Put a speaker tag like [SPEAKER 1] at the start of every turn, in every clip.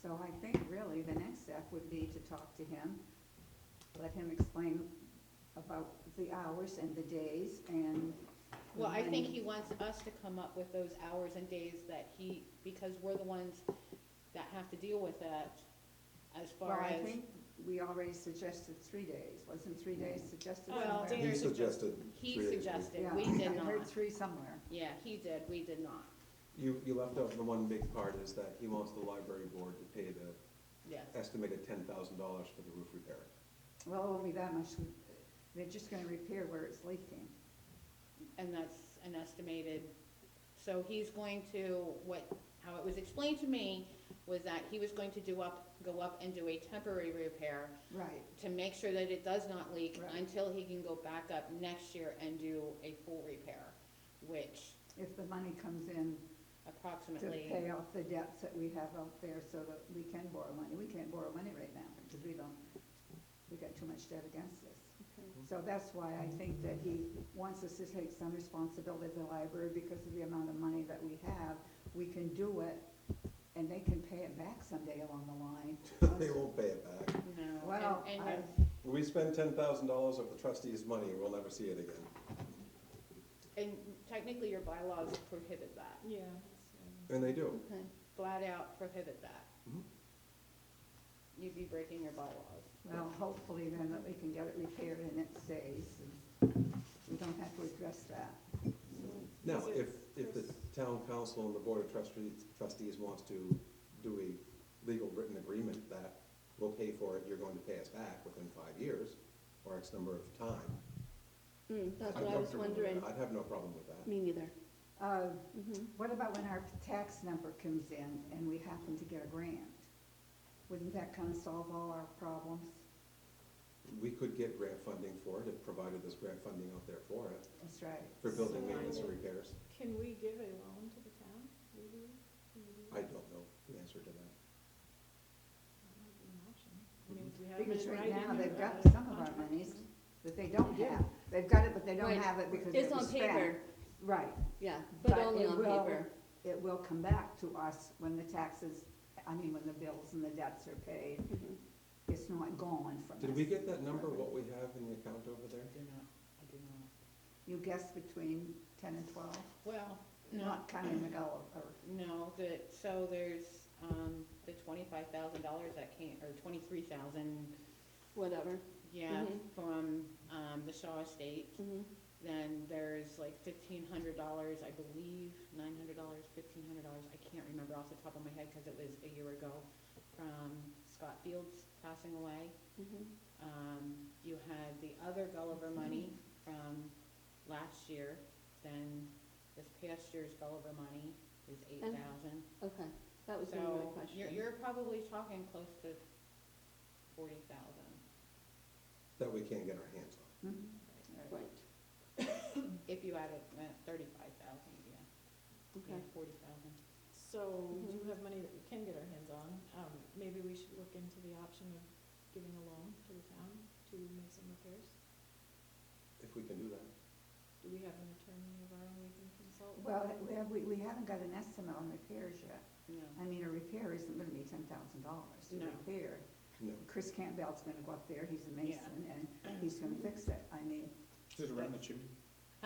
[SPEAKER 1] So I think really the next step would be to talk to him, let him explain about the hours and the days and.
[SPEAKER 2] Well, I think he wants us to come up with those hours and days that he, because we're the ones that have to deal with that as
[SPEAKER 1] Well,
[SPEAKER 2] far
[SPEAKER 1] I
[SPEAKER 2] as,
[SPEAKER 1] think we already suggested three days, wasn't three days suggested
[SPEAKER 2] Well,
[SPEAKER 1] somewhere?
[SPEAKER 2] Dan-
[SPEAKER 3] He
[SPEAKER 2] Here's a-
[SPEAKER 3] suggested three
[SPEAKER 2] he
[SPEAKER 3] days.
[SPEAKER 2] suggested,
[SPEAKER 1] Yeah,
[SPEAKER 2] we did
[SPEAKER 1] I
[SPEAKER 2] not.
[SPEAKER 1] heard three somewhere.
[SPEAKER 2] Yeah, he did, we did not,
[SPEAKER 4] You, you left out the one big part is that he wants the library board to pay the
[SPEAKER 2] yes.
[SPEAKER 4] estimated ten thousand dollars for the roof repair.
[SPEAKER 1] Well, it won't be that much, they're just gonna repair where it's leaking.
[SPEAKER 2] And that's an estimated, so he's going to, what, how it was explained to me was that he was going to do up, go up and do a temporary repair
[SPEAKER 1] Right.
[SPEAKER 2] to make sure that it does not leak
[SPEAKER 1] Right.
[SPEAKER 2] until he can go back up next year and do a full repair, which
[SPEAKER 1] If the money comes in to
[SPEAKER 2] approximately.
[SPEAKER 1] pay off the debts that we have out there so that we can borrow money. We can't borrow money right now because we don't, we got too much debt against us. So that's why I think that he wants us to take some responsibility of the library because of the amount of money that we have. We can do it and they can pay it back someday along the line.
[SPEAKER 4] They won't pay it back.
[SPEAKER 2] No, and,
[SPEAKER 1] Well,
[SPEAKER 2] and,
[SPEAKER 1] I,
[SPEAKER 4] We spend ten thousand dollars of the trustees' money, we'll never see it again.
[SPEAKER 2] and technically your bylaws prohibit that,
[SPEAKER 5] Yeah.
[SPEAKER 4] And they do.
[SPEAKER 2] flat out prohibit that.
[SPEAKER 4] Mhm.
[SPEAKER 2] You'd be breaking your bylaws.
[SPEAKER 1] well, hopefully then that we can get it repaired in its days and we don't have to address that.
[SPEAKER 4] Now,
[SPEAKER 5] Is it
[SPEAKER 4] if, if the town council and the board of trustees, trustees wants to do a legal written agreement that we'll pay for it, you're going to pay us back within five years, or X number of time.
[SPEAKER 6] Mm, that's
[SPEAKER 4] I'm
[SPEAKER 6] what I was
[SPEAKER 4] comfortable with
[SPEAKER 6] wondering.
[SPEAKER 4] that. I'd have no problem with that.
[SPEAKER 6] Me neither.
[SPEAKER 1] Uh,
[SPEAKER 6] Mhm.
[SPEAKER 1] What about when our tax number comes in and we happen to get a grant? Wouldn't that kind of solve all our problems?
[SPEAKER 4] We could get grant funding for it, if provided there's grant funding out there for it,
[SPEAKER 1] That's right.
[SPEAKER 4] for building
[SPEAKER 5] So-
[SPEAKER 4] maintenance and repairs.
[SPEAKER 5] Can we give a loan to the town? Legally? Can we do that?
[SPEAKER 4] I don't know the answer to that.
[SPEAKER 5] That might be an option. I mean, we have it in
[SPEAKER 1] Because right now,
[SPEAKER 5] writing
[SPEAKER 1] they've
[SPEAKER 5] or
[SPEAKER 1] got
[SPEAKER 5] a
[SPEAKER 1] some of our
[SPEAKER 5] contract.
[SPEAKER 1] monies that they don't have. They've got it, but they don't
[SPEAKER 6] Right.
[SPEAKER 1] have it because it
[SPEAKER 6] It's
[SPEAKER 1] was
[SPEAKER 6] on
[SPEAKER 1] spent.
[SPEAKER 6] paper,
[SPEAKER 1] Right.
[SPEAKER 6] yeah, but
[SPEAKER 1] But
[SPEAKER 6] only
[SPEAKER 1] it
[SPEAKER 6] on
[SPEAKER 1] will-
[SPEAKER 6] paper.
[SPEAKER 1] It will come back to us when the taxes, I mean, when the bills and the debts are paid.
[SPEAKER 6] Mhm.
[SPEAKER 1] It's not gone from us.
[SPEAKER 4] Did we get that number, what we have in the account over there?
[SPEAKER 5] I do not, I do not.
[SPEAKER 1] You guessed between ten and twelve,
[SPEAKER 2] Well, no,
[SPEAKER 1] not counting the dollar, or
[SPEAKER 2] no, the, so there's, um, the twenty-five thousand dollars that came, or twenty-three thousand,
[SPEAKER 6] Whatever.
[SPEAKER 2] yeah,
[SPEAKER 6] Mhm.
[SPEAKER 2] from, um, the Shaw Estate.
[SPEAKER 6] Mhm.
[SPEAKER 2] Then there's like fifteen hundred dollars, I believe, nine hundred dollars, fifteen hundred dollars, I can't remember off the top of my head because it was a year ago, from Scott Fields passing away.
[SPEAKER 6] Mhm.
[SPEAKER 2] Um, you had the other Gulliver money from last year, then this past year's Gulliver money is eight thousand.
[SPEAKER 6] Okay, that was gonna be my
[SPEAKER 2] So you're,
[SPEAKER 6] question.
[SPEAKER 2] you're probably talking close to forty thousand.
[SPEAKER 4] That we can't get our hands on.
[SPEAKER 1] hmm?
[SPEAKER 6] Right,
[SPEAKER 2] If you added thirty-five thousand, yeah, yeah,
[SPEAKER 6] okay.
[SPEAKER 2] forty thousand.
[SPEAKER 5] So we do
[SPEAKER 1] Mm-hmm.
[SPEAKER 5] have money that we can get our hands on. Um, maybe we should look into the option of giving a loan to the town to make some repairs.
[SPEAKER 4] If we can do that,
[SPEAKER 5] Do we have an attorney of our own we can consult? with?
[SPEAKER 1] Well, we have, we, we haven't got an estimate on repairs yet.
[SPEAKER 2] No,
[SPEAKER 1] I mean, a repair isn't gonna be ten thousand dollars to
[SPEAKER 2] No.
[SPEAKER 1] repair.
[SPEAKER 4] no.
[SPEAKER 1] Chris Campbell's gonna go up there, he's a mason, and he's gonna fix it. I mean,
[SPEAKER 7] Is it around the chimney?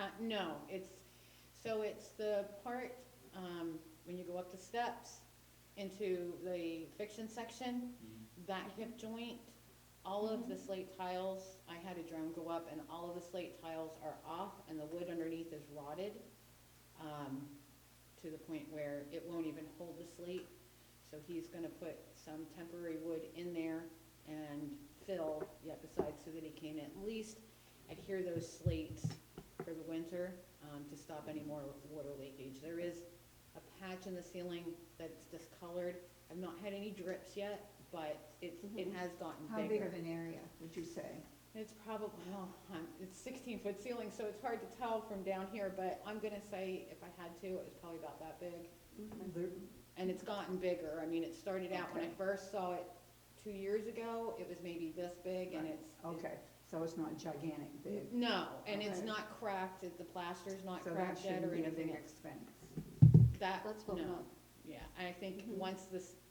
[SPEAKER 2] uh, no, it's, so it's the part, um, when you go up the steps into the fiction section, that hip joint, all of the slate tiles, I had a drone go up and all of the slate tiles are off and the wood underneath is rotted. Um, to the point where it won't even hold the slate, so he's gonna put some temporary wood in there and fill yet besides so that he can at least adhere those slates for the winter, um, to stop any more water leakage. There is a patch in the ceiling that's discolored. I've not had any drips yet, but it's, it
[SPEAKER 6] Mhm.
[SPEAKER 2] has gotten
[SPEAKER 1] Mm-hmm. how big
[SPEAKER 2] bigger.
[SPEAKER 1] of an area would you say?
[SPEAKER 2] It's probably, well, um, it's sixteen foot ceiling, so it's hard to tell from down here, but I'm gonna say if I had to, it was probably about that big.
[SPEAKER 6] Mhm.
[SPEAKER 2] And it's gotten bigger. I mean, it started out when I
[SPEAKER 1] Okay.
[SPEAKER 2] first saw it two years ago, it was maybe this big and it's.
[SPEAKER 1] Okay, so it's not gigantic big,
[SPEAKER 2] No, and it's
[SPEAKER 1] Okay.
[SPEAKER 2] not cracked, it- the plaster's not
[SPEAKER 1] so that
[SPEAKER 2] cracked yet
[SPEAKER 1] shouldn't
[SPEAKER 2] or
[SPEAKER 1] be a
[SPEAKER 2] anything
[SPEAKER 1] big
[SPEAKER 2] else.
[SPEAKER 1] expense.
[SPEAKER 2] That,
[SPEAKER 6] Let's hope
[SPEAKER 2] no,
[SPEAKER 6] not.
[SPEAKER 2] yeah, I think
[SPEAKER 1] Mm-hmm.
[SPEAKER 6] Mhm.
[SPEAKER 2] once this,